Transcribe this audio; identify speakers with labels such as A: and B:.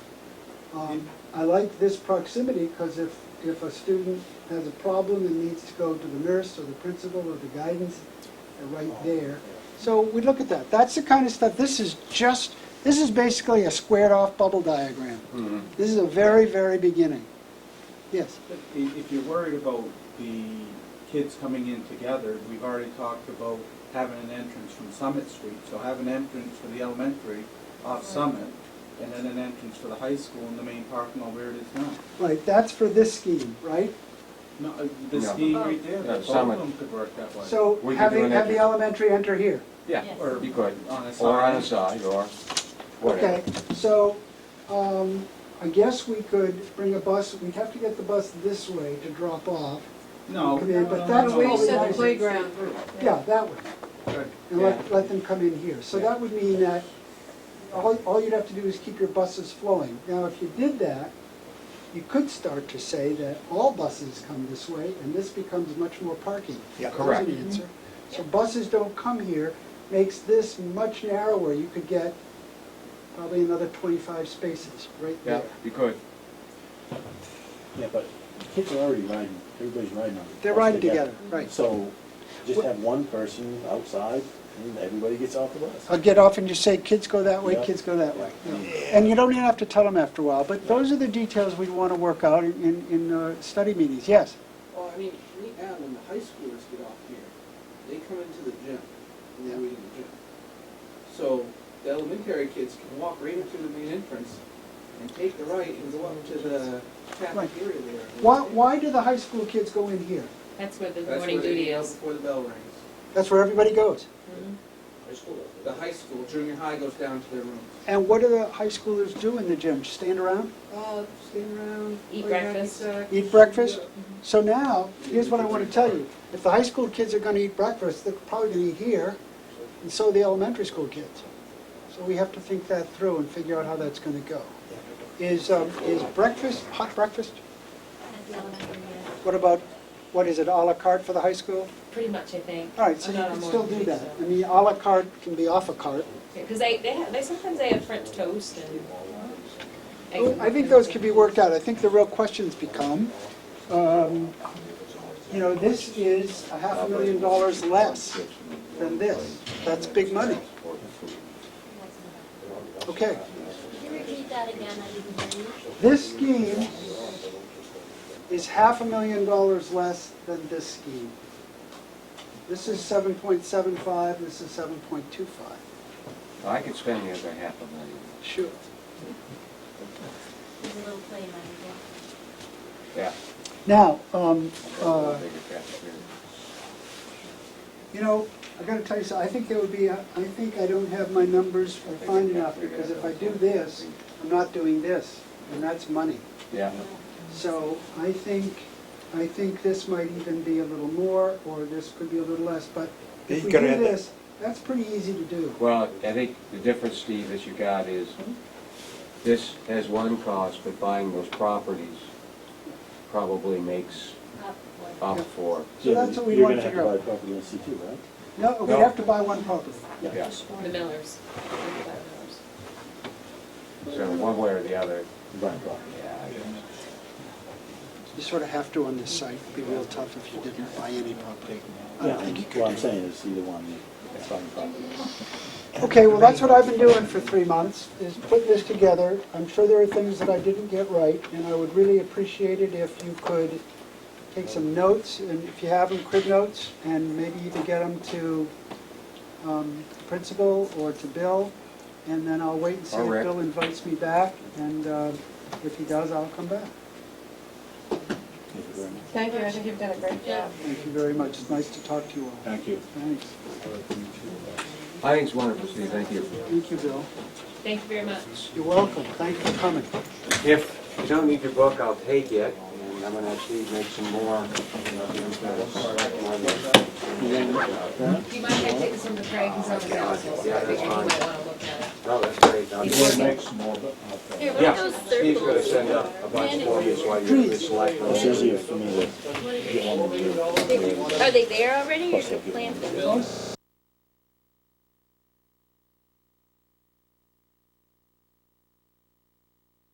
A: Um, I like this proximity, because if, if a student has a problem and needs to go to the nurse or the principal or the guidance, they're right there. So we look at that. That's the kind of stuff, this is just, this is basically a squared-off bubble diagram.
B: Mm-hmm.
A: This is a very, very beginning. Yes,
C: If- If you're worried about the kids coming in together, we've already talked about having an entrance from Summit Street, so have an entrance for the elementary off Summit, and then an entrance for the high school in the main parking lot where it is now.
A: right, that's for this scheme, right?
C: No, uh, the
B: No.
C: scheme right there,
B: No,
C: both of
B: Summit.
C: them could work that way.
A: So
B: We could
A: have
B: do
A: the,
B: an
A: have the
B: entrance.
A: elementary enter here.
C: Yeah,
D: Yes.
C: or
B: You could,
C: on a side.
B: or on the side, or
A: Okay,
B: whatever.
A: so, um, I guess we could bring a bus, we'd have to get the bus this way to drop off.
C: No.
A: Come in,
C: no,
A: but
C: no,
A: that's
C: no,
A: where
C: no,
A: you
C: no,
A: said the
C: no.
D: playground.
A: Yeah, that way,
C: Good.
A: and let, let them come in here. So that would mean that all, all you'd have to do is keep your buses flowing. Now, if you did that, you could start to say that all buses come this way, and this becomes much more parking.
B: Yeah.
A: That's
B: Correct. Mm-hmm.
A: an answer. So buses don't come here, makes this much narrower. You could get probably another twenty-five spaces right
B: Yeah,
A: there.
B: you could.
E: Yeah, but kids are already riding, everybody's riding on it.
A: They're riding together, right.
E: So just have one person outside and everybody gets off the bus.
A: I'll get off and just say, kids go that way,
E: Yeah.
A: kids go that way. And you don't even have to tell them after a while, but those are the details we want to work out in- in, in uh, study meetings, yes.
F: Well, I mean, we add when the high schoolers get off here, they come into the gym, and they're in the gym. So the elementary kids can walk right up to the main entrance and take the right and go up to the cafeteria there.
A: Why, why do the high school kids go in here?
D: That's where the
F: That's
D: morning
F: where they
D: duty
F: go
D: is.
F: Before the bell rings.
A: That's where everybody goes.
F: The high school, junior high goes down to their rooms.
A: And what do the high schoolers do in the gym? Just Stand around?
F: Uh, stand around.
D: Eat
F: play hacky
D: breakfast.
F: sack.
A: Eat breakfast? So now, here's what I want to tell you. If the high school kids are going to eat breakfast, they're probably going to eat here, and so are the elementary school kids. So we have to think that through and figure out how that's going to go. Is, um, is breakfast, hot breakfast?
D: At the elementary, yeah.
A: What about, what is it, à la carte for the high school?
D: Pretty much, I think.
A: All right, so
D: I'm
A: you
D: not
A: can
D: on
A: still
D: morning
A: do
D: duty,
A: that. I
D: so-
A: mean, à la carte can be off a carte.
D: Yeah, Cause they, they, have- they, sometimes they have French toast and.
A: Oh, I think those can be worked out. I think the real questions become, um, you know, this is a half a million dollars less than this. That's big money. Okay,
G: Can you repeat that again? I didn't hear you.
A: this scheme is half a million dollars less than this scheme. This is 7.75, this is 7.25.
B: I could spend the other half a million.
A: Sure.
G: There's a little play money there.
B: Yeah.
A: Now, um,
B: that's a little
A: uh,
B: bigger cafeteria.
A: You know, I gotta tell you something, I think there would be, a- I think I don't have my numbers
B: I think
A: fine
B: it's
A: enough,
B: definitely
A: because
B: gonna
A: if I do
B: go
A: this,
B: something.
A: I'm not doing this, and that's money.
B: Yeah,
A: So I think, I think this might even be a little more, or this could be a little less, but if
H: You
A: we do
H: gotta add that.
A: this, that's pretty easy to do.
B: well, I think the difference, Steve, that you got is, this has one cost, but buying those properties probably makes
G: Up what?
B: up for,
A: So that's what we
E: You're
A: want to
E: gonna have
A: figure
E: buy
A: out.
E: property in C two, right?
A: No, we
B: No.
A: have to buy one property.
B: yes.
D: The Millers. The
B: So one way or the other,
E: Buy property.
B: yeah, I guess.
A: You sort of have to on this site, it'd be real tough if you didn't buy any property. I
E: Yeah,
A: don't think you could.
E: what I'm saying is either one, it's buying property.
A: Okay, well, that's what I've been doing for three months, is putting this together. I'm sure there are things that I didn't get right, and I would really appreciate it if you could take some notes, and if you have them, crib notes, and maybe even get them to um, the principal or to Bill, and then I'll wait and see
B: Or
A: if
B: Rick.
A: Bill invites me back, and uh, if he does, I'll come back.
E: Thank you very much.
D: Thank you, I think you've done a great job.
A: Thank you very much, it's nice to talk to you all.
E: Thank you.
A: Thanks.
B: I think it's wonderful, Steve, thank you.
A: Thank you, Bill.
D: Thank you very much.
A: You're welcome, thanks for coming.
B: If you don't need your book, I'll take it, and I'm gonna actually make some more.
D: Do you mind if I take this from the Craig, he's on the council, so I
B: Yeah, that's
D: think you
B: fine.
D: might wanna look at it.
B: Oh, that's great. I'll
D: He's
B: just-
D: working.
G: Here, what are
B: Yeah,
G: those circles?
B: Steve's gonna send up a bunch for you, so I can just select
E: It's
B: those.
E: easier for me to get on the
G: Are they there already, or is it planned?
A: Those